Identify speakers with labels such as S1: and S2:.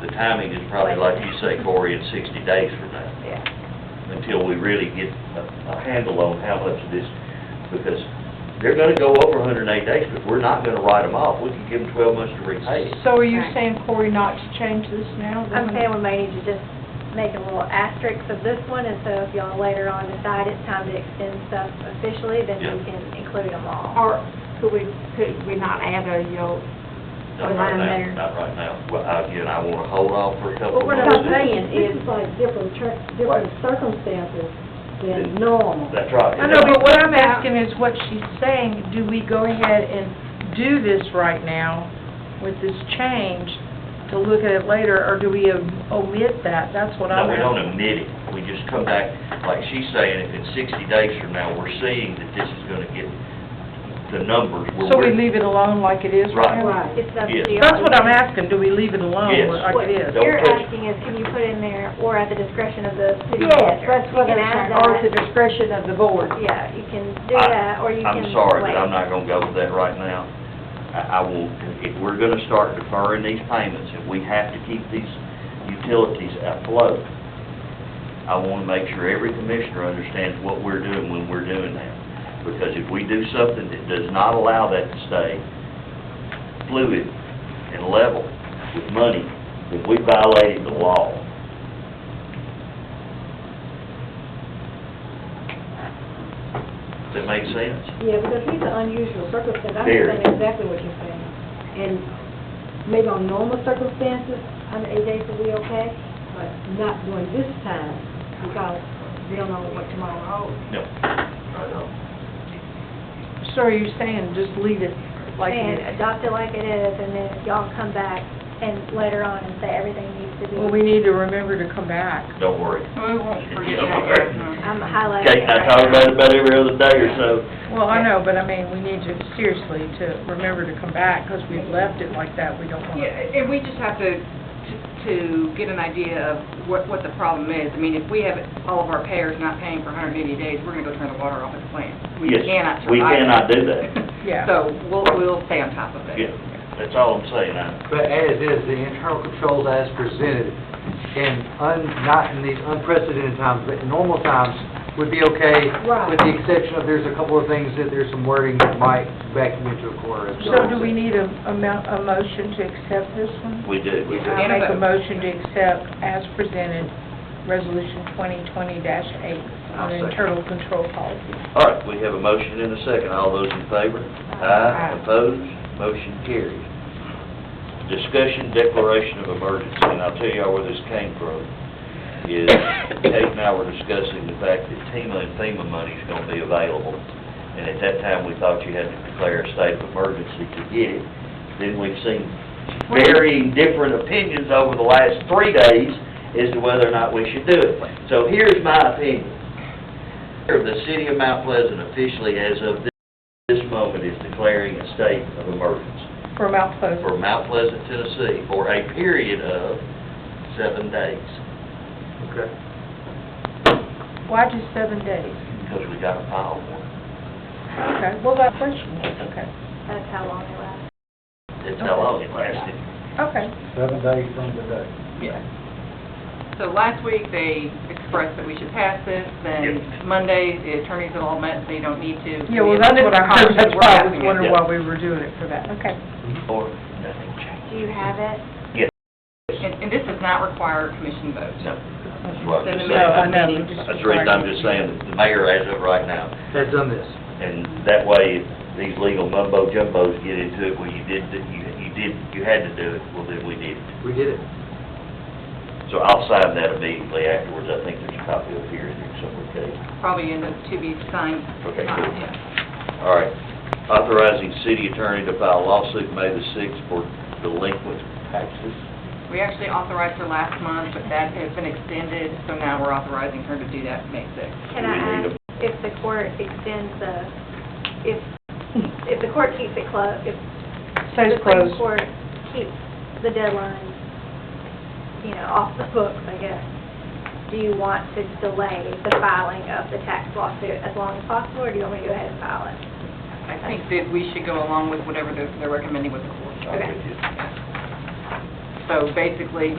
S1: the timing is probably like you say, Cory, in sixty days from now,
S2: Yeah.
S1: until we really get a, a handle on how much of this, because they're gonna go over hundred and eight days, but we're not gonna write them off, we can give them twelve months to repay it.
S3: So are you
S2: Right.
S3: saying, Corey, not to change this now?
S2: I'm saying we may need to just make a little asterisk of this one, and so if y'all later on decide it's time to extend stuff officially, then we
S1: Yeah.
S2: can include them all.
S4: Or could we, could we not add a, you know,
S1: Not
S4: Put
S1: right
S4: mine
S1: now,
S4: there.
S1: not right now, well, again, I wanna hold off for a couple
S2: But
S1: of
S2: we're
S1: months.
S2: not saying
S5: This
S2: is,
S5: is like different, tr- different circumstances than normal.
S1: That's right.
S3: I know, but what I'm asking is what she's saying, do we go ahead and do this right now with this change to look at it later, or do we omit that? That's what
S1: No,
S3: I'm
S1: we don't
S3: asking.
S1: admit it, we just come back, like she's saying, if it's sixty days from now, we're seeing that this is gonna get the numbers. where
S3: So we
S1: we're-
S3: leave it alone like it is right now?
S5: Right.
S2: it's up to
S1: Yes.
S2: you.
S3: That's what I'm asking, do we leave it alone
S1: Yes.
S3: like it is?
S1: Don't
S2: What you're
S1: touch it.
S2: asking is, can you put in there, or at the discretion of the city manager?
S5: Yes, that's what
S2: You can
S5: I'm
S2: add
S5: saying, or
S2: that.
S5: at the discretion of the board.
S2: Yeah, you can do
S1: I-
S2: that, or you can.
S1: I'm sorry, but
S2: wait.
S1: I'm not gonna go with that right now. I, I will, if we're gonna start deferring these payments, if we have to keep these utilities afloat, I wanna make sure every commissioner understands what we're doing when we're doing that. Because if we do something that does not allow that to stay fluid and level with money, then we violated the law. Does that make sense?
S5: Yeah, because these are unusual circumstances, I
S1: Very.
S5: understand exactly what you're saying. And maybe on normal circumstances, under eight days will be okay, but not during this time, because we don't know what tomorrow holds.
S1: No. I don't.
S3: So are you saying just leave it like it
S2: And
S3: is?
S2: adopt it like it is, and then if y'all come back and later on and say everything needs to be,
S3: Well, we need to remember to come back.
S1: Don't worry.
S6: We won't forget.
S1: Okay.
S2: I'm highlighting.
S1: Okay,
S2: it
S1: I
S2: right
S1: talk
S2: now.
S1: about it about every other day or so.
S3: Well, I know, but I mean, we need to, seriously, to remember to come back, because we've left it like that, we don't want to...
S6: Yeah, and we just have to, to- to get an idea of what, what the problem is. I mean, if we have all of our payers not paying for 180 days, we're gonna go turn the water off at the plant. We
S1: Yes,
S6: cannot survive.
S1: we cannot
S6: that.
S1: do that.
S3: Yeah.
S6: So we'll, we'll stay on top of it.
S1: Yeah, that's all I'm saying. I-
S7: But as is, the internal controls as presented, in un, not in these unprecedented times, but in normal times, would be okay,
S5: Right.
S7: with the exception of there's a couple of things that there's some wording that might vacuum into a corner. as
S3: So
S7: well.
S3: do we need a, a mo- a motion to accept this one?
S1: We do, we do.
S3: I make a motion to accept as presented, Resolution 2020-8
S7: I'll
S3: on
S7: second.
S3: internal control policy.
S1: All right, we have a motion and a second. All those in favor? Aye. Opposed? Motion carries. Discussion declaration of emergency, and I'll tell y'all where this came from, is Kate and I were discussing the fact that TEMA and FEMA money's gonna be available. And at that time, we thought you had to declare a state of emergency to get it. Then we've seen varying different opinions over the last three days as to whether or not we should do it. So here's my opinion. The city of Mount Pleasant officially, as of this moment, is declaring a state of emergency
S3: For Mount Pleasant.
S1: for Mount Pleasant, Tennessee, for a period of seven days,
S7: Okay.
S3: Why just seven days?
S1: because we got a pile of them.
S3: Okay, well, that question was, okay.
S2: That's how long it lasts.
S1: That's how long it lasted.
S3: Okay.
S7: Seven days from today.
S6: So last week, they expressed that we should pass this,
S1: Yeah.
S6: then Monday, the attorneys had all met, they don't need to.
S3: Yeah, well, that's what I heard, that's
S6: We're
S3: why I
S6: passing
S3: was
S6: it.
S3: wondering
S1: Yeah.
S3: why we were doing it for that, okay.
S1: Or nothing changed.
S2: Do you have it?
S6: And, and this does not require a commission vote.
S1: No, that's what I'm just
S6: No,
S1: saying.
S6: I know.
S1: That's the reason I'm just saying, that the mayor as of right now,
S7: Has done this.
S1: And that way, if these legal mumbo jumbos get into it, well, you did, you, you did, you had to do it, well, then we did. it.
S7: We did it.
S1: So I'll sign that immediately afterwards. I think there's a copy up here in there somewhere, Kate.
S6: Probably end up to be signed.
S1: Okay,
S6: Uh,
S1: cool.
S6: yeah.
S1: All right. Authorizing city attorney to file lawsuit May the sixth for delinquent taxes.
S6: We actually authorized her last month, but that has been extended, so now we're authorizing her to do that May 6th.
S2: Can
S1: We
S2: I
S1: need
S2: ask if the court extends the, if, if the court keeps it closed, if
S3: Stays
S2: the Supreme
S3: closed.
S2: Court keeps the deadline, you know, off the books, I guess, do you want to delay the filing of the tax lawsuit as long as possible, or do you want me to go ahead and file it?
S6: I think that we should go along with whatever they're they're recommending with the court.
S1: I'll give you-
S6: So basically,